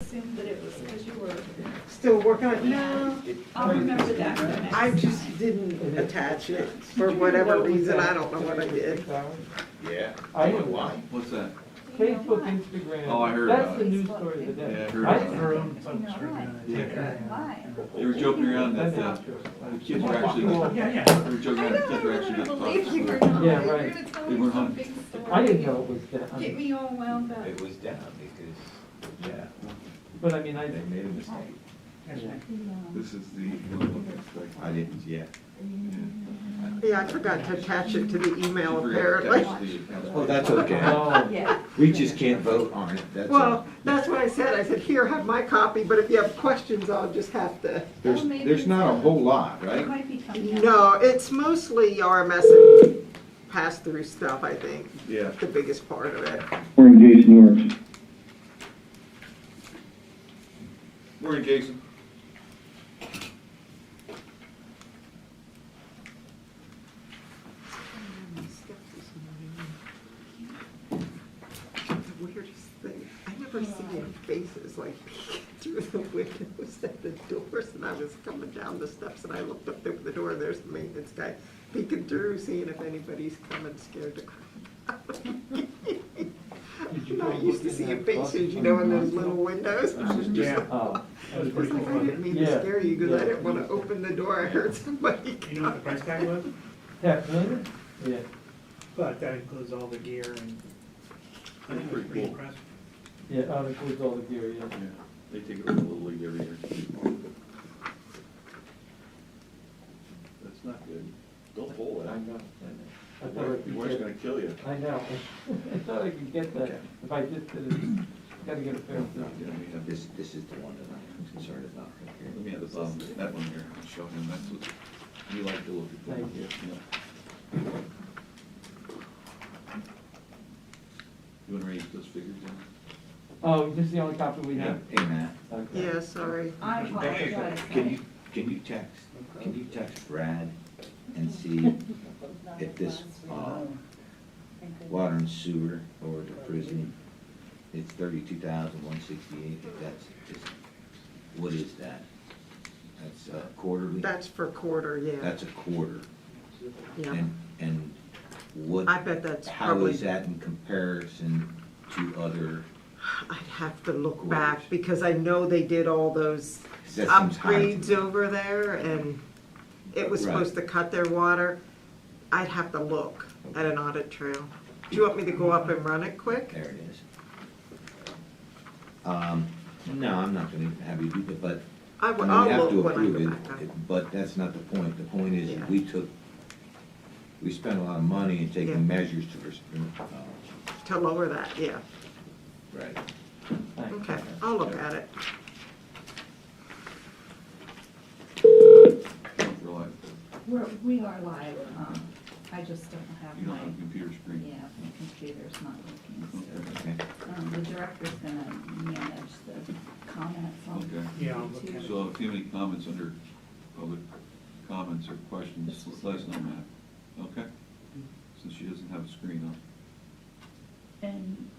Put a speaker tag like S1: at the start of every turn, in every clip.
S1: assumed that it was because you were,
S2: Still working on, no,
S1: I'll remember that for next
S2: I
S1: time.
S2: just didn't attach it for whatever reason, I don't know what I did.
S3: Yeah.
S4: I
S3: You know
S4: would-
S3: why?
S5: What's that?
S4: Facebook, Instagram.
S5: Oh, I heard
S4: That's
S5: about
S4: the
S5: it.
S4: news story of the day.
S5: Yeah, I heard
S4: I
S5: about it.
S6: Her own
S1: You know
S6: folks are gonna
S1: what?
S6: take her.
S1: Why?
S5: They were joking around that the, the kids were actually, they were
S6: Yeah, yeah.
S5: joking
S1: I
S5: around, the kids
S1: never
S5: were
S1: would
S5: actually
S1: have
S5: getting
S1: believed you were
S5: caught.
S1: not.
S4: Yeah,
S1: You were
S4: right.
S1: gonna tell
S5: They
S1: me
S5: were
S1: some
S5: hung.
S1: big story.
S4: I didn't know it was
S1: Get
S4: them,
S1: me all wound up.
S3: It was down because, yeah,
S4: but I mean, I,
S3: they made a mistake.
S6: That's right.
S5: This is the one that's like,
S3: I didn't, yeah.
S2: Yeah, I forgot to attach it to the email
S5: She forgot to
S2: apparently.
S5: touch the accounts.
S3: Well, that's okay.
S4: oh,
S1: Yeah.
S3: We just can't vote on it, that's all.
S2: Well, that's what I said, I said, here, have my copy, but if you have questions, I'll just have to.
S3: There's,
S1: Well, maybe
S3: there's not a
S1: it's-
S3: whole lot,
S1: It
S3: right?
S1: might be coming out.
S2: No, it's mostly RMS and pass-through stuff, I think,
S5: Yeah.
S2: the biggest part of it.
S7: Morning, Jason Norris.
S5: Morning, Jason.
S2: The weirdest thing, I never see any faces like peeking through the windows at the doors, and I was coming down the steps and I looked up over the door, and there's the maintenance guy peeking through, seeing if anybody's coming scared to crap. out of me.
S4: Did you
S2: I'm
S4: go
S2: not used to
S4: looking
S2: seeing
S4: at
S2: faces, you
S4: buses
S2: know,
S4: on
S2: in
S4: the
S2: those
S4: bus?
S2: little windows. I was just
S6: Yeah.
S2: like,
S4: oh,
S6: That was
S2: it's
S6: pretty
S2: like,
S6: cool.
S2: I
S6: wasn't
S2: didn't
S6: it?
S2: mean to
S4: Yeah.
S2: scare you, because I
S4: Yeah.
S2: didn't want to open the door, I heard somebody
S6: You know what the
S2: coming.
S6: price tag was?
S4: half million? Yeah,
S6: But that includes all the gear and. I think it was pretty impressive.
S4: yeah, that includes all the gear, yeah.
S5: Yeah, They take over the Little League every year. That's not good. Don't pull it. I know.
S4: I thought I
S5: Your
S4: could
S5: wife's
S4: get-
S5: gonna kill you.
S4: I know, I thought I could get that, if I just did it, gotta get a fair
S5: You know,
S4: thing.
S5: we have this-
S3: This, this is the one that I'm concerned about right here.
S5: Let me have the bottom, that one here, I'll show him, that's what, you like to look at.
S4: Thank you.
S5: Yeah. You wanna read those figures down?
S4: Oh, this is the only copy we have?
S3: Hey, Matt,
S4: Okay.
S2: Yeah, sorry.
S1: I apologize.
S3: can you, can you text, can you text Brad and see if this, uh, water and sewer or the prison, it's thirty-two thousand one sixty-eight, that's, just what is that? That's uh, quarterly?
S2: That's for quarter, yeah,
S3: That's a quarter.
S2: yeah.
S3: And, and what?
S2: I bet that's
S3: How
S2: probably,
S3: is that in comparison to other,
S2: I'd have to look back, because I know they did all those
S3: 'cause that seems high to
S2: upgrades over there, and it was
S3: Right.
S2: supposed to cut their water. I'd have to look at an audit trail. Do you want me to go up and run it quick?
S3: There it is. Um, no, I'm not gonna have you do that, but
S2: I
S3: I
S2: will,
S3: mean, you
S2: I'll
S3: have to
S2: look when I
S3: approve
S2: go back up.
S3: it, but that's not the point. The point is,
S2: Yeah.
S3: we took, we spent a lot of money in
S2: Yeah.
S3: taking measures to, res- uh,
S2: To lower that, yeah.
S3: right.
S4: Thanks.
S2: Okay, I'll look at it.
S5: Don't realize that
S1: We're, we are live, um, I just don't have
S5: you don't
S1: my,
S5: have a computer
S1: yeah,
S5: screen.
S1: my computer's not working, so.
S3: Okay.
S1: Um, the director's gonna manage the comments on
S5: Okay.
S6: Yeah, I'll look at it.
S5: So if you have any comments under public comments or questions, let us know, Matt, okay? Since she doesn't have a screen on.
S1: And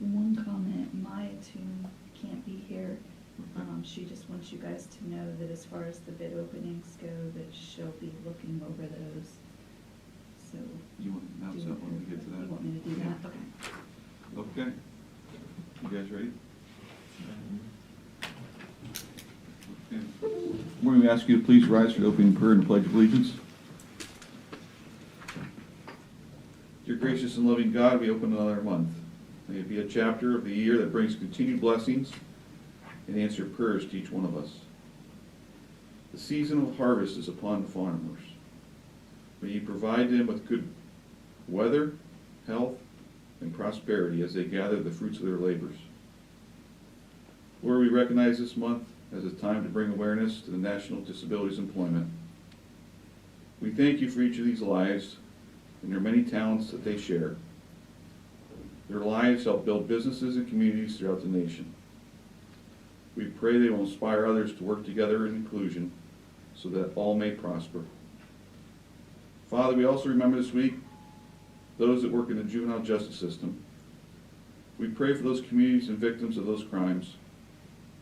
S1: one comment, Maya Toon can't be here.
S5: Mm-hmm.
S1: Um, she just wants you guys to know that as far as the bid openings go, that she'll be looking over those. So.
S5: You want to announce
S1: do-
S5: that when we get to that?
S1: You want me to do that? Okay.
S5: Okay. You guys ready? Okay. We're going to ask you to please rise for the opening prayer and pledge of allegiance. Dear gracious and loving God, we open another month. May it be a chapter of the year that brings continued blessings and answer prayers to each one of us. The season of harvest is upon the farmers. May you provide them with good weather, health, and prosperity as they gather the fruits of their labors. Lord, we recognize this month as a time to bring awareness to the National Disabilities Employment. We thank you for each of these lives and their many talents that they share. Their lives help build businesses and communities throughout the nation. We pray they will inspire others to work together in inclusion so that all may prosper. Father, we also remember this week those that work in the juvenile justice system. We pray for those communities and victims of those crimes